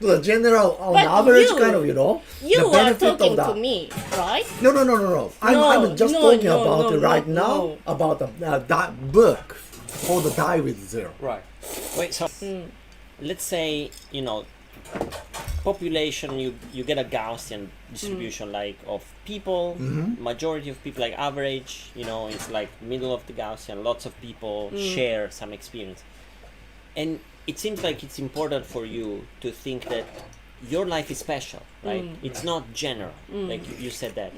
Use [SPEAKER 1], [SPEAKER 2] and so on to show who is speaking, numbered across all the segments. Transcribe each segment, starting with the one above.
[SPEAKER 1] the general on
[SPEAKER 2] But
[SPEAKER 1] average
[SPEAKER 2] you-
[SPEAKER 1] kind of you know
[SPEAKER 2] You
[SPEAKER 1] the
[SPEAKER 2] are
[SPEAKER 1] benefit
[SPEAKER 2] talking
[SPEAKER 1] of that.
[SPEAKER 2] to me, right?
[SPEAKER 1] No, no, no, no, no. I'm,
[SPEAKER 2] No,
[SPEAKER 1] I'm just
[SPEAKER 2] no,
[SPEAKER 1] talking
[SPEAKER 2] no,
[SPEAKER 1] about
[SPEAKER 2] no,
[SPEAKER 1] it right
[SPEAKER 2] no,
[SPEAKER 1] now
[SPEAKER 2] no.
[SPEAKER 1] about the, uh, that book called the Die with Zero.
[SPEAKER 3] Right. Wait. So, let's say you know, population. You you get a Gaussian distribution,
[SPEAKER 2] Mm.
[SPEAKER 3] like of people. Majority of people, like average. You know, it's like middle of the Gaussian. Lots of people
[SPEAKER 2] Mm.
[SPEAKER 3] share some experience, and it seems like it's important for you to think that your life is special, right?
[SPEAKER 2] Mm.
[SPEAKER 3] It's not general, like you, you said that.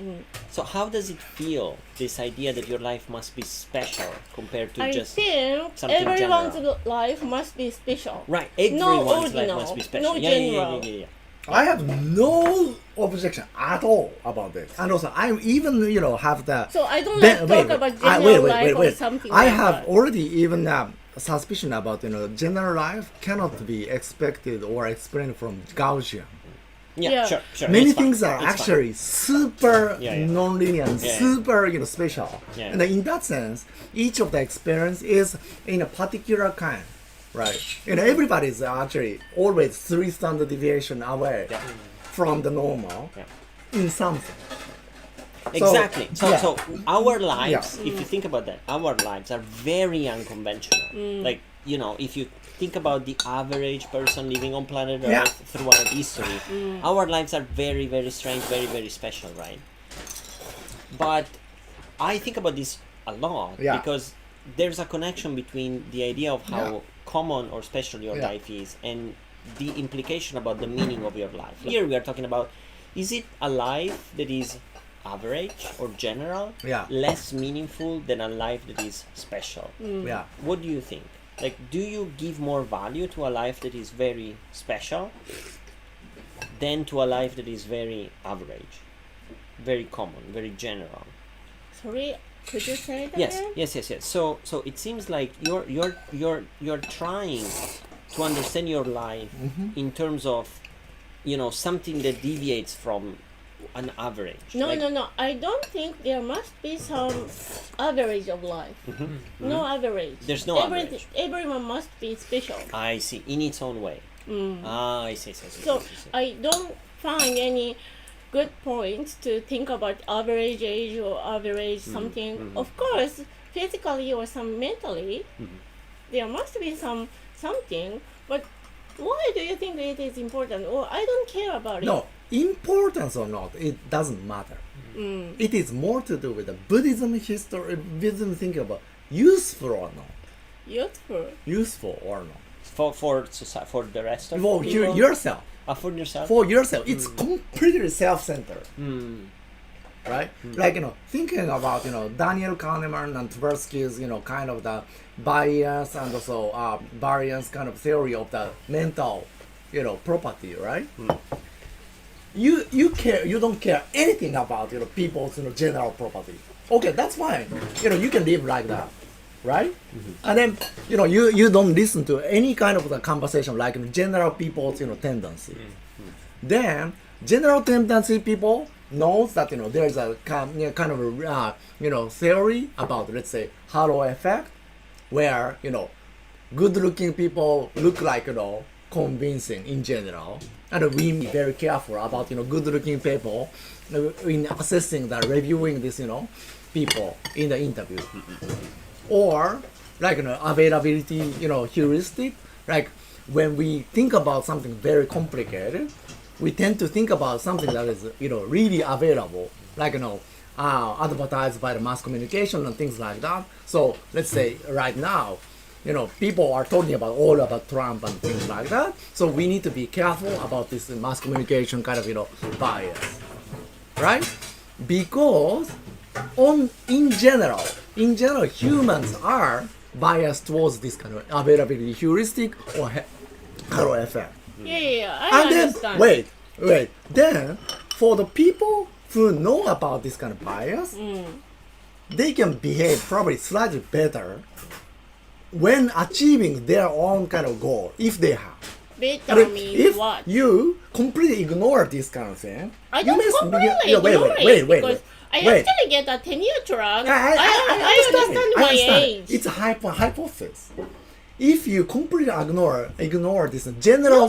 [SPEAKER 3] So how does it feel? This idea that your life must be special compared to
[SPEAKER 2] I
[SPEAKER 3] just
[SPEAKER 2] think
[SPEAKER 3] something
[SPEAKER 2] everyone's
[SPEAKER 3] general.
[SPEAKER 2] life must be special.
[SPEAKER 3] Right,
[SPEAKER 2] No
[SPEAKER 3] everyone's life
[SPEAKER 2] original,
[SPEAKER 3] must be
[SPEAKER 2] no
[SPEAKER 3] special. yeah, yeah, yeah,
[SPEAKER 2] general.
[SPEAKER 3] yeah, yeah,
[SPEAKER 1] I have no objection at all about this. And also, I even you know have the.
[SPEAKER 2] So I don't
[SPEAKER 1] Ben-
[SPEAKER 2] like
[SPEAKER 1] wait,
[SPEAKER 2] talk
[SPEAKER 1] wait.
[SPEAKER 2] about
[SPEAKER 1] I-
[SPEAKER 2] general
[SPEAKER 1] wait, wait,
[SPEAKER 2] life
[SPEAKER 1] wait,
[SPEAKER 2] or
[SPEAKER 1] wait.
[SPEAKER 2] something.
[SPEAKER 1] I
[SPEAKER 2] like
[SPEAKER 1] have
[SPEAKER 2] that.
[SPEAKER 1] already even um, suspicion about you know general life cannot be expected or explained from Gaussian.
[SPEAKER 3] yeah.
[SPEAKER 2] Yeah.
[SPEAKER 3] sure, sure.
[SPEAKER 1] Many
[SPEAKER 3] it's fine,
[SPEAKER 1] things are
[SPEAKER 3] it's fine.
[SPEAKER 1] actually super
[SPEAKER 3] Yeah, yeah.
[SPEAKER 1] non-linear, and
[SPEAKER 3] Yeah, yeah.
[SPEAKER 1] super you know special.
[SPEAKER 3] Yeah.
[SPEAKER 1] And in that sense, each of the experience is in a particular kind, right? And everybody is actually always three standard deviation away
[SPEAKER 3] Yeah.
[SPEAKER 1] from the normal
[SPEAKER 3] Yeah.
[SPEAKER 1] in something.
[SPEAKER 3] Exactly. So,
[SPEAKER 1] yeah.
[SPEAKER 3] so our lives, if
[SPEAKER 2] Mm.
[SPEAKER 3] you think about that, our lives are very unconventional.
[SPEAKER 2] Mm.
[SPEAKER 3] Like you know, if you think about the average person living on planet Earth
[SPEAKER 1] Yeah.
[SPEAKER 3] throughout history,
[SPEAKER 2] Mm.
[SPEAKER 3] our lives are very, very strange, very, very special, right? But I think about this a lot
[SPEAKER 1] Yeah.
[SPEAKER 3] because there's a connection between the idea of how
[SPEAKER 1] Yeah.
[SPEAKER 3] common or special your
[SPEAKER 1] Yeah.
[SPEAKER 3] life is and the implication about the meaning of your life. Here we are talking about is it a life that is average or general,
[SPEAKER 1] Yeah.
[SPEAKER 3] less meaningful than a life that is special?
[SPEAKER 1] Yeah.
[SPEAKER 3] What do you think? Like, do you give more value to a life that is very special than to a life that is very average, very common, very general?
[SPEAKER 2] Sorry, could you say that?
[SPEAKER 3] yes
[SPEAKER 2] again?
[SPEAKER 3] yes yes yes so so it seems like you're you're you're you're trying to understand your life in terms of you know something that deviates from an average
[SPEAKER 2] No,
[SPEAKER 3] like,
[SPEAKER 2] no, no. I don't think there must be some average of life. No average.
[SPEAKER 3] Mm-hmm. There's no
[SPEAKER 2] Everyth- Everyone must be special.
[SPEAKER 3] i see in its own way ah i see, I see, I see, I
[SPEAKER 2] Mm. So
[SPEAKER 3] see, I see.
[SPEAKER 2] I don't find any good points to think about average age or average
[SPEAKER 1] Mm-hmm.
[SPEAKER 2] something. Of course, physically or some mentally,
[SPEAKER 1] Mm-hmm.
[SPEAKER 2] there must be some something. But why do you think it is important? Or I don't care about it.
[SPEAKER 1] No, importance or not, it doesn't matter. It is more to do with the Buddhism history, Buddhism thinking about useful or not,
[SPEAKER 2] Useful.
[SPEAKER 1] Mm-hmm. useful or not.
[SPEAKER 3] for for soci- for the rest of
[SPEAKER 1] For you,
[SPEAKER 3] people?
[SPEAKER 1] yourself,
[SPEAKER 3] Ah, for yourself
[SPEAKER 1] for yourself, it's completely self-centered. Right? Like, you know, thinking about, you know, Daniel Kahneman and Tversky's, you know, kind of the bias and also uh, variance kind of theory of the mental, you know, property, right? You you care you don't care anything about you know people's you know general property. Okay, that's fine. You know, you can live like that. Right? And then you know you, you don't listen to any kind of the conversation like you know, general people's you know tendency then general tendency people knows that you know there's a kind you know, kind of a, uh, you know theory about let's say halo effect where you know good looking people look like you know convincing in general and we be very careful about you know good looking people uh, in assessing the reviewing this you know people in the interview or like you know availability you know heuristic like when we think about something very complicated we tend to think about something that is you know really available like you know uh, advertised by the mass communication and things like that so let's say right now you know people are talking about all about trump and things like that so we need to be careful about this mass communication kind of you know bias right? Because on in general, in general, humans are biased towards this kind of availability heuristic or he- halo effect.
[SPEAKER 2] Yeah, yeah, yeah. I
[SPEAKER 1] And then
[SPEAKER 2] understand.
[SPEAKER 1] wait, wait. Then for the people who know about this kind of bias,
[SPEAKER 2] Mm.
[SPEAKER 1] they can behave probably slightly better when achieving their own kind of goal if they have. I
[SPEAKER 2] Beta
[SPEAKER 1] mean,
[SPEAKER 2] means
[SPEAKER 1] if
[SPEAKER 2] what?
[SPEAKER 1] you completely ignore this kind of thing,
[SPEAKER 2] I
[SPEAKER 1] you
[SPEAKER 2] don't
[SPEAKER 1] must-
[SPEAKER 2] completely
[SPEAKER 1] yeah, wait,
[SPEAKER 2] ignore
[SPEAKER 1] wait, wait,
[SPEAKER 2] it
[SPEAKER 1] wait,
[SPEAKER 2] because I
[SPEAKER 1] wait. Wait.
[SPEAKER 2] actually get a ten-year track.
[SPEAKER 1] I, I, I,
[SPEAKER 2] understand,
[SPEAKER 1] it.
[SPEAKER 2] my
[SPEAKER 1] I understand it.
[SPEAKER 2] age.
[SPEAKER 1] It's a hypo- hypothesis. If you completely ignore ignore this general